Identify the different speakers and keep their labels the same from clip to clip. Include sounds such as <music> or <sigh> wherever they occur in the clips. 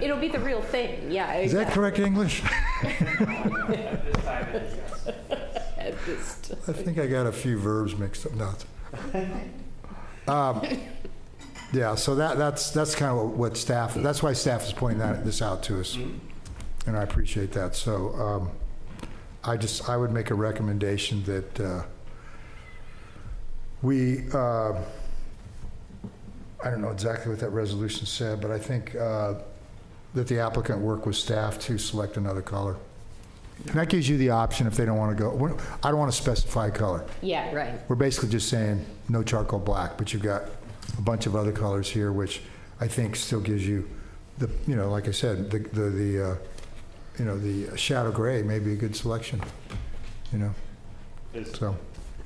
Speaker 1: It'll be the real thing, yeah.
Speaker 2: Is that correct English?
Speaker 3: At this time, it is yes.
Speaker 2: I think I got a few verbs mixed up. No. it's- Um, Yeah, so that, that's, that's kind of what staff, that's why staff is pointing that, this out to us. And I appreciate that. So um, I just, I would make a recommendation that uh, we, uh, I don't know exactly what that resolution said, but I think uh, that the applicant work with staff to select another color. And that gives you the option if they don't want to go, we- I don't want to specify color.
Speaker 1: Yeah, right.
Speaker 2: We're basically just saying no charcoal black, but you've got a bunch of other colors here, which I think still gives you the, you know, like I said, the, the, the, uh, you know, the shadow gray may be a good selection, you know,
Speaker 4: Is,
Speaker 2: so.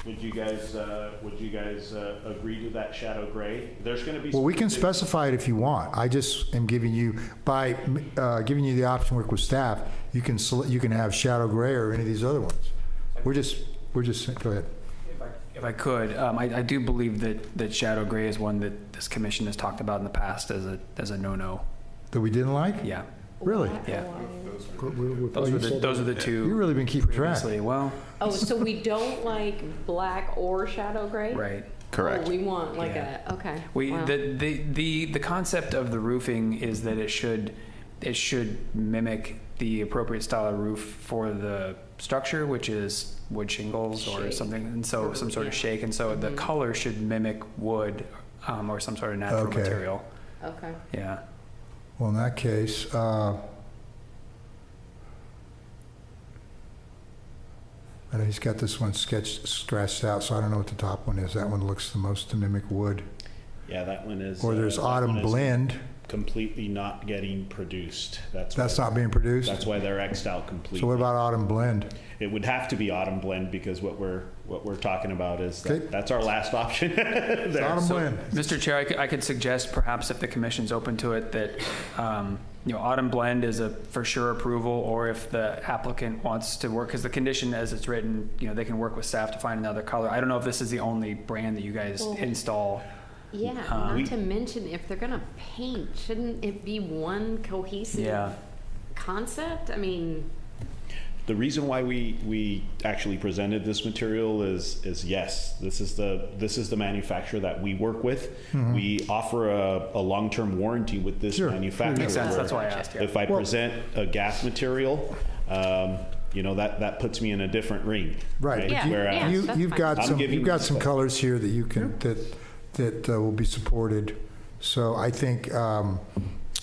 Speaker 4: would you guys, uh, would you guys, uh, agree to that shadow gray? There's gonna be.
Speaker 2: Well, we can
Speaker 4: specific-
Speaker 2: specify it if you want. I just am giving you, by uh, giving you the option to work with staff, you can, sele- you can have shadow gray or any of these other ones. We're just, we're just, go ahead.
Speaker 3: If I could, um, I, I do believe that, that shadow gray is one that this commission has talked about in the past as a, as a no-no.
Speaker 2: That we didn't like?
Speaker 3: Yeah,
Speaker 2: Really?
Speaker 3: yeah.
Speaker 2: Those
Speaker 3: Those were the, those are the
Speaker 2: You've
Speaker 3: two
Speaker 2: really been keeping track.
Speaker 3: previously. Well,
Speaker 1: Oh, so we don't like black or shadow gray?
Speaker 3: right.
Speaker 1: Oh, We want like
Speaker 3: Yeah.
Speaker 1: a, okay.
Speaker 3: We,
Speaker 1: wow.
Speaker 3: the, the, the, the concept of the roofing is that it should, it should mimic the appropriate style of roof for the structure, which is wood shingles or
Speaker 1: Shake.
Speaker 3: something, and so some sort of
Speaker 1: Yeah. Mm-hmm.
Speaker 3: shake, and so the color should mimic wood, um, or some sort of natural
Speaker 2: Okay.
Speaker 3: material.
Speaker 1: Okay.
Speaker 3: Yeah.
Speaker 2: Well, in that case, uh, I know he's got this one sketched, scratched out, so I don't know what the top one is. That one looks the most to mimic wood.
Speaker 4: Yeah, that one is.
Speaker 2: Or
Speaker 4: uh,
Speaker 2: there's
Speaker 4: that one
Speaker 2: autumn
Speaker 4: is
Speaker 2: blend,
Speaker 4: Completely not getting produced. That's.
Speaker 2: that's
Speaker 4: why-
Speaker 2: not being produced.
Speaker 4: That's why they're Xed out completely.
Speaker 2: So what about autumn blend?
Speaker 4: It would have to be autumn blend because what we're, what we're talking about is
Speaker 2: Okay.
Speaker 4: that, that's our last option. <laughs>
Speaker 2: It's
Speaker 4: there.
Speaker 2: autumn blend.
Speaker 3: Mr. Chair, I could, I could suggest perhaps if the commission's open to it, that, um, you know, autumn blend is a for sure approval, or if the applicant wants to work, because the condition as it's written, you know, they can work with staff to find another color. I don't know if this is the only brand that you guys
Speaker 1: Well-
Speaker 3: install.
Speaker 1: Yeah,
Speaker 3: Um,
Speaker 1: not to mention if they're gonna paint, shouldn't it be one cohesive
Speaker 3: Yeah.
Speaker 1: concept? I mean,
Speaker 4: The reason why we, we actually presented this material is, is yes, this is the, this is the manufacturer that we work with. We offer a, a long-term warranty with this
Speaker 2: Mm-hmm. Sure.
Speaker 4: manufacturer.
Speaker 3: Makes sense, that's why I
Speaker 4: where
Speaker 3: asked, yeah.
Speaker 4: If I present a gas material, um, you know, that, that puts me in a different ring. uh,
Speaker 2: Right. but
Speaker 1: Yeah,
Speaker 2: you-
Speaker 1: yeah,
Speaker 4: Whereas,
Speaker 2: You,
Speaker 1: that's
Speaker 2: you've
Speaker 1: fine.
Speaker 2: got
Speaker 4: I'm
Speaker 2: some,
Speaker 4: giving
Speaker 2: you've got
Speaker 4: you
Speaker 2: some
Speaker 4: the-
Speaker 2: colors here that you can, that, that uh, will be supported. So I think, um,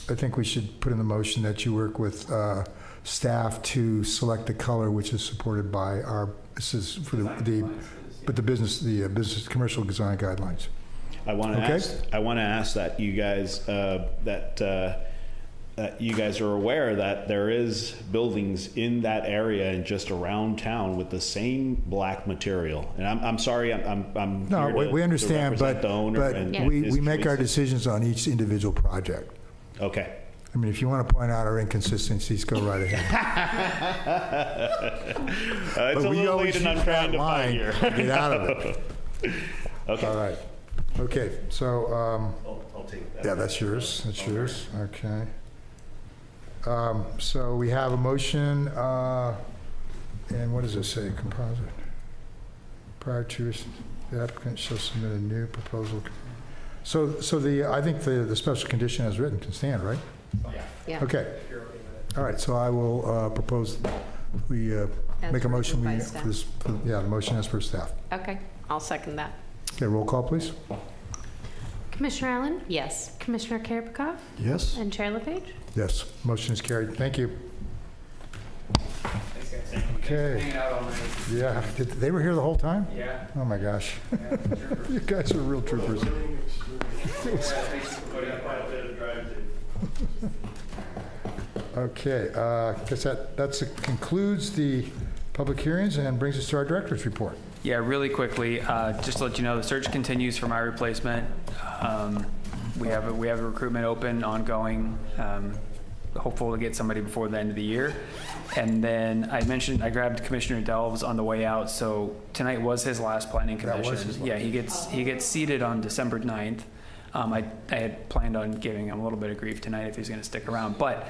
Speaker 2: I think we should put in the motion that you work with, uh, staff to select the color which is supported by our, this is for the, the, but the business, the uh, business, commercial design guidelines.
Speaker 4: I want to
Speaker 2: Okay.
Speaker 4: ask. I want to ask that you guys uh, that uh, that you guys are aware that there is buildings in that area and just around town with the same black material. And I'm, I'm sorry, I'm I'm, I'm
Speaker 2: No,
Speaker 4: here
Speaker 2: we,
Speaker 4: to-
Speaker 2: we
Speaker 4: to
Speaker 2: understand,
Speaker 4: represent
Speaker 2: but,
Speaker 4: the owner
Speaker 2: but
Speaker 4: and
Speaker 1: Yeah.
Speaker 2: we,
Speaker 4: his
Speaker 2: we make our
Speaker 4: choices.
Speaker 2: decisions on each individual project.
Speaker 4: okay.
Speaker 2: I mean, if you want to point out our inconsistencies, go right ahead.
Speaker 4: Uh, it's a
Speaker 2: But we
Speaker 4: little
Speaker 2: always
Speaker 4: late, and I'm
Speaker 2: use
Speaker 4: trying
Speaker 2: that
Speaker 4: to find
Speaker 2: line
Speaker 4: here.
Speaker 2: to Get out
Speaker 4: <laughs>
Speaker 2: of it. All
Speaker 4: Okay,
Speaker 2: right. Okay, so, um,
Speaker 4: I'll, I'll take that.
Speaker 2: yeah, that's yours, that's yours, okay. Um, so we have a motion, uh, and what does it say, composite? Prior to, the applicant shall submit a new proposal. So, so the, I think the, the special condition as written can stand, right?
Speaker 1: yeah.
Speaker 2: Okay. All right, so I will, uh, propose, we, uh,
Speaker 1: As
Speaker 2: make a
Speaker 1: written
Speaker 2: motion,
Speaker 1: by
Speaker 2: we,
Speaker 1: staff.
Speaker 2: for this, for- yeah, the motion as per staff.
Speaker 1: Okay, I'll second that.
Speaker 2: Okay, roll call, please.
Speaker 5: Commissioner Allen?
Speaker 1: Yes.
Speaker 5: Commissioner Karpikov?
Speaker 2: Yes.
Speaker 5: And Chair LePage?
Speaker 2: Yes, motion is carried. Thank you. Okay, yeah, Did- they were here the whole time?
Speaker 3: Yeah.
Speaker 2: Oh, my gosh. <laughs> You guys are real troopers. Okay, uh, guess that, that's, concludes the public hearings and brings us to our director's report.
Speaker 3: Yeah, really quickly, uh, just to let you know, the search continues for my replacement. Um, We have, a- we have a recruitment open, ongoing, um, hopeful to get somebody before the end of the year. And then I mentioned, I grabbed Commissioner Delves on the way out, so tonight was his last planning
Speaker 2: That was
Speaker 3: commission.
Speaker 2: his last.
Speaker 3: Yeah, he gets, he gets seated on December 9th. Um, Um, I, I had planned on giving him a little bit of grief tonight if he's going to stick around, but